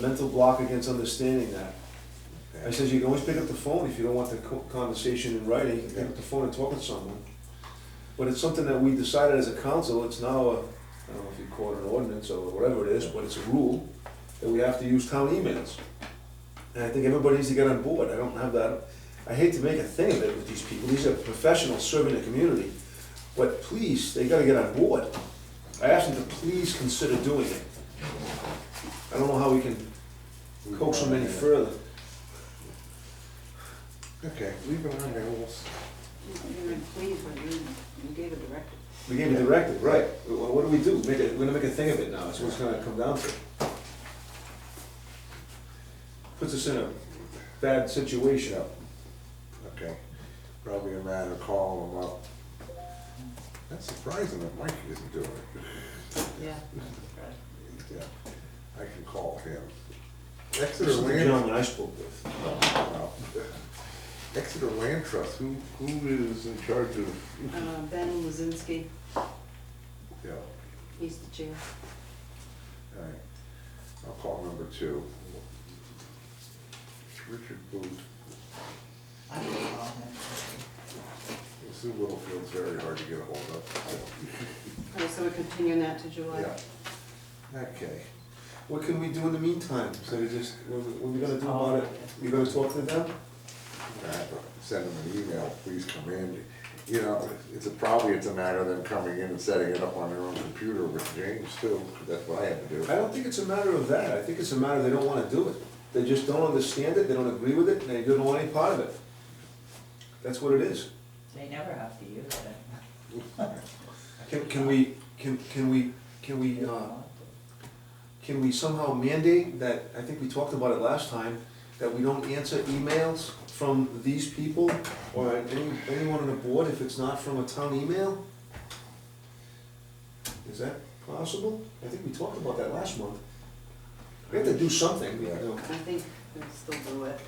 mental block against understanding that. I Okay. says, you can always pick up the phone if you don't want the co- conversation in writing, you can pick up the phone and talk to someone. But it's something that we decided as a council, it's now a, I don't know if you call it an ordinance or whatever it is, but it's a rule that we have to use town emails. And I think everybody needs to get on board, I don't have that, I hate to make a thing of it with these people, these are professionals serving the community. But please, they gotta get on board. I asked them to please consider doing it. I don't know how we can coax them any further. Okay, leave it on there, we'll, s- You were pleased when you, you gave a directive. We gave a directive, right, Wh- what do we do? Make it, we're gonna make a thing of it now, that's what it's gonna come down to. Puts us in a bad situation. okay, probably a matter of calling them up. That's surprising that Mike isn't doing it. Yeah. Yeah, I can call him. Exeter This is the Land, gentleman I spoke with. wow. Exeter Land Trust, who, who is in charge of, Uh, Ben Lozinski, yeah, he's the chair. all right. I'll call number two. Richard Booth, I can call him. Sue Littlefield's very hard to get a hold of. Okay, so we're continuing that to July? Yeah. Okay. What can we do in the meantime? So we just, what we- what we gonna do about it? You gonna talk to them? I Send them an email, please come in. You know, it's a, probably it's a matter of them coming in and setting it up on their own computer with James too, that's what I had to do. I don't think it's a matter of that, I think it's a matter they don't wanna do it. They just don't understand it, they don't agree with it, and they don't want any part of it. That's what it is. They never have to use it. Can, can we, can, can we, can we, uh, Can we somehow mandate that, I think we talked about it last time, that we don't answer emails from these people or any, anyone on the board if it's not from a town email? Is that possible? I think we talked about that last month. We have to do something, you know. I think they'll still do it.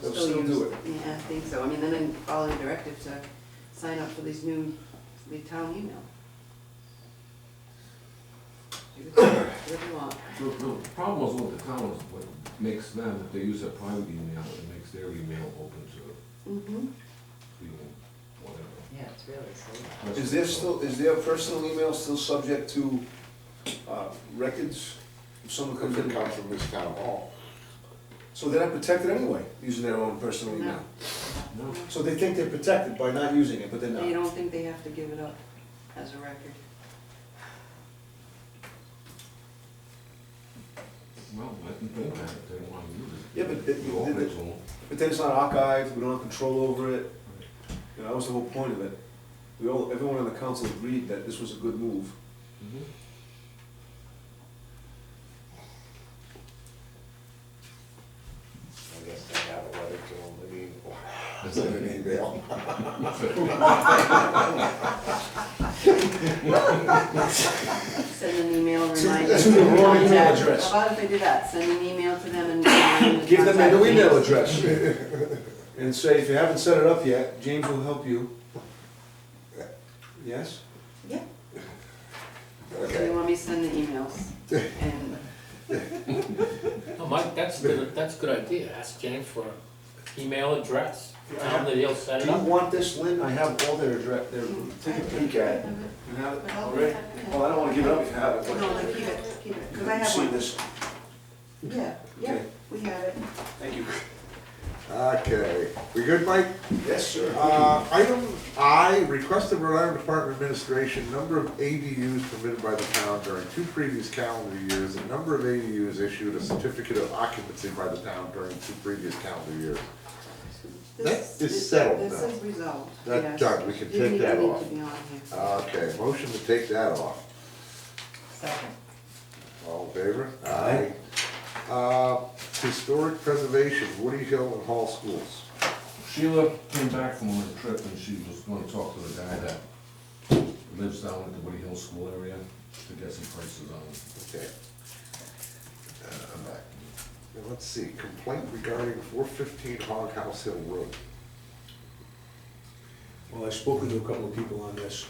They'll still do use- Yeah, I think so. I mean, then in- all the directives are sign up for these new, the town email. Do What you want. No, no, the problem is with the town is what makes them, if they use a private email, it makes their email open to, Mm-hmm. you know, whatever. Yeah, it's really silly. Is there still, is their personal email still subject to, uh, records? If someone Because comes it in, comes from this town hall. so they're not protected anyway, using their own personal email. No, So they think they're protected by not using it, but they're not. They don't think they have to give it up as a record. well, let them think about it, they don't wanna use it. Yeah, but they- You open it to them. But then it's not archived, we don't have control over it. You know, that was the whole point of it. We all, everyone on the council agreed that this was a good move. Mm-hmm. Mhm. I guess they have a letter to them, I mean, send an email. Send an email To- reminder. to the wrong email Contact- address. How about if they do that? Send an email to them and remind them. to Give them contact their new me. email address. And say, if you haven't set it up yet, James will help you. Yes? Yeah, so you Okay, want me to send the emails and No, Oh, Mike, that's, good- that's a good idea, ask James for email address, tell him that he'll set Do it you up. want this, Lynn? I have all their address, their, take a peek at it. You have it already? Well, I don't wanna give it up if you have it, No, but. like, keep it, keep it, because I You've have seen one. this. Yeah, yeah, Okay. we have it. Thank you. okay, we good, Mike? Yes, sir. Uh, item I, request of Rhode Island Department of Administration, number of ADUs permitted by the town during two previous calendar years, and number of ADUs issued a certificate of occupancy by the town during two previous calendar years. This- That is this- settled This now. is resolved, yes. That's done. We can You take need- that you need off. Uh, to be on here. Okay, motion to take that off. Second. All in favor? Aye. Uh, historic preservation, Woody Hill and Hall Schools. Sheila came back from her trip and she was gonna talk to the guy that lives down at the Woody Hill School area to get some prices on it. Okay. Uh, I'm back. Now, let's see, complaint regarding four fifteen Hog House Hill Road. Well, I've spoken to a couple of people on this.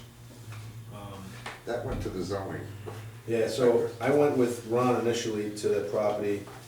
Um, That went to the zoning. Yeah, so I went with Ron initially to the property,